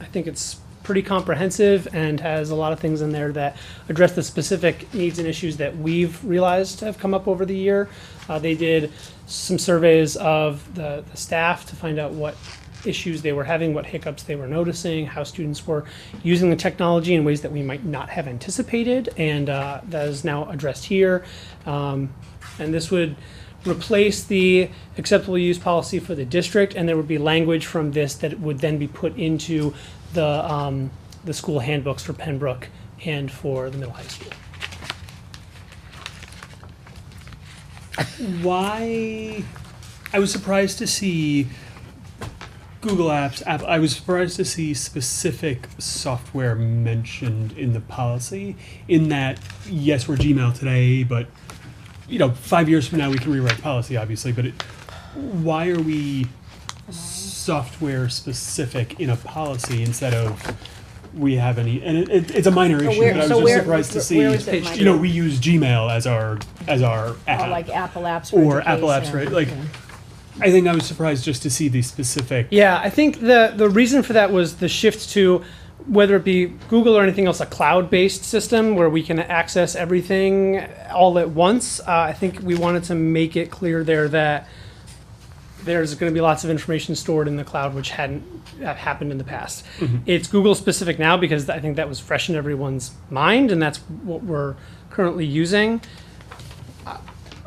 I think it's pretty comprehensive and has a lot of things in there that address the specific needs and issues that we've realized have come up over the year. Uh, they did some surveys of the, the staff to find out what issues they were having, what hiccups they were noticing, how students were using the technology in ways that we might not have anticipated, and uh, that is now addressed here. Um, and this would replace the acceptable use policy for the district, and there would be language from this that would then be put into the, um, the school handbooks for Pembroke and for the middle high school. Why? I was surprised to see Google Apps. App, I was surprised to see specific software mentioned in the policy. In that, yes, we're Gmail today, but you know, five years from now we can rewrite policy, obviously. But it, why are we software specific in a policy instead of we have any? And it, it, it's a minor issue, where- but I was so just where- surprised to see. where is it, you know, Mike? we use Gmail as our as our app Or like Apple Apps for or Apple Apps, Education. right? Like, I think I was surprised just to see the specific. Yeah, I think the the reason for that was the shift to whether it be Google or anything else, a cloud-based system where we can access everything all at once. Uh, I think we wanted to make it clear there that there's going to be lots of information stored in the cloud, which hadn't uh, happened in the past. It's Google specific now because I think that was fresh in everyone's mind, and that's what we're currently using. I-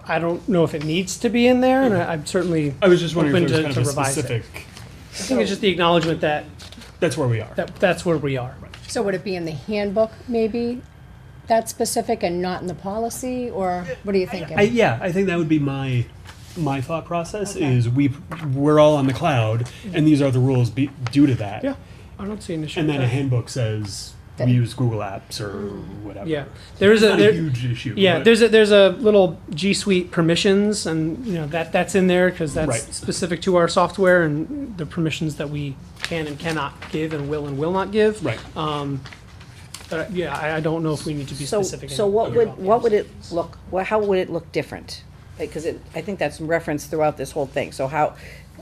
I don't know if it needs to be in there, and I- I'm certainly I was just wondering if Open there to- was kind to of a revise it. specific. I think it's just the acknowledgement that, That's where we are. that that's where we are. So would it be in the handbook, maybe, that specific and not in the policy, or what are you thinking? I, yeah, I think that would be my my thought process Okay. is we we're all on the cloud, and these are the rules be, due to that. Yeah, I don't see an issue. And with then a that. handbook says That- we use Google Apps or whatever. Yeah, there is It's a not a there, huge issue. yeah. but- There's a there's a little G Suite permissions, and you know that that's in there because that's Right. specific to our software and the permissions that we can and cannot give, and will and will not give. right. But uh, yeah, I, I don't know if we need to be So, specific. in- so what would, about what these. would it look, well, how would it look different? Because it, I think that's referenced throughout this whole thing, so how,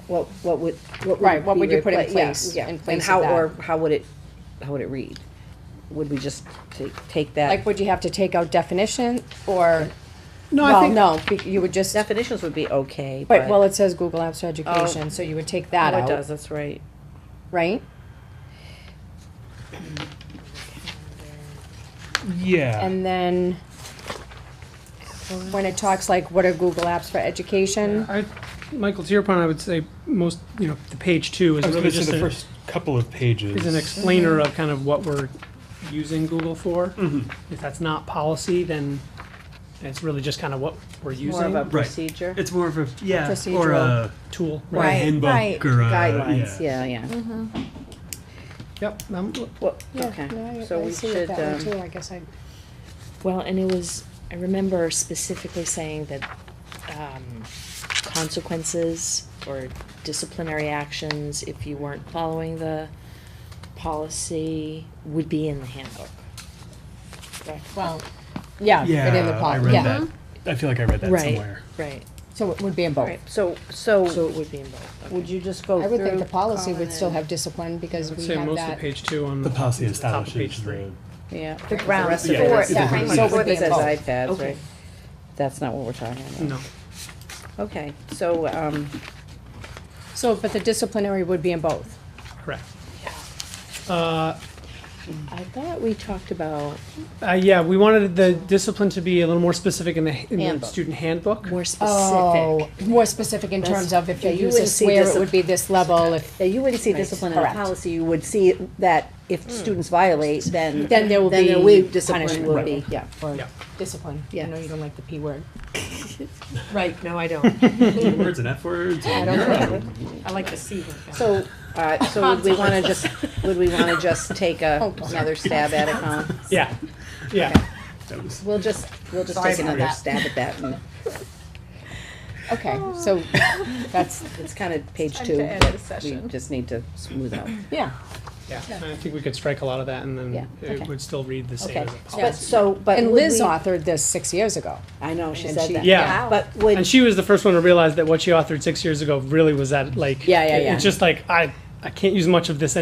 what, what would, what would Right, what be would you put in repla- yeah, place- yeah. in place of And how, or that? how would it, how would it read? Would we just ta- take Like, that? would you have to take out definition, or, No, I well, think no, be- you would just, Definitions would be okay, but. but, well, it says Google Apps for Education, so you would take that Oh, it does, out, that's right. right? yeah. And then, when it talks like, what are Google Apps for Education? I, Michael, to your point, I would say most you know the page two is I was really going to just say the a- first couple of pages. is an explainer of kind of what we're using Google for. Mm-hmm. If that's not policy, then it's really just kind of what we're More of a using, procedure, it's more of a yeah or Procedural. a, tool. or a Right, handbook right. or a guidelines, yeah, yeah. Yep, um, Well, Mm-hmm. Yeah, no, I- okay, so I we see it should, that way um, too, I guess I, Well, and it was, I remember specifically saying that um, consequences or disciplinary actions, if you weren't following the policy, would be in the handbook. well, yeah, yeah. but in the I policy, read yeah, that. I feel like I read that Right, somewhere. right, so it would be in both. right, so, so so it would be in both, okay. would you just go I through? would think the policy Colin, would still and- have discipline, because I'd we say have most of that. page two on. The policy the top of establishes page three. the Mm-hmm. Yeah. The ground of it. floor, It's the yeah, framework. so it Before would be it in says both. iPads, Okay. right? That's not what we're talking about. No, Okay, so, um, So, but the disciplinary would be in both. correct. Uh, I thought we talked about uh, yeah, we wanted the discipline to be a little more specific in the, in the Handbook. student handbook. more specific. Oh, more specific in terms of if they use You a wouldn't see swear, it discipline- would be this level, if, yeah, you wouldn't see Right, discipline in a correct. Mm. policy, you would see that if students violate, then. Then there will be Discipline punishment. will be, yeah. or Yeah. discipline, I know you don't like the P word. Right, no, I don't. words and F words. I don't think, I like the C word. So, uh, so would we wanna just, would we wanna just take Oh, a, another stab at it, Colin? Yeah, yeah. That was, We'll just, we'll just Sorry take about another that. stab at that, and okay, so, that's, it's kinda page two. that We just need to smooth out. yeah, Yeah, I think we could strike a lot of that and Yeah, then it okay. would still read the same Okay, as a policy. but, so, but. and would Liz we- authored this six years ago. I know, she and said she- that. Yeah. But would. And she was the first one to realize that what she authored six years ago really was that like. Yeah, yeah, yeah. It's just like, I, I can't use much of this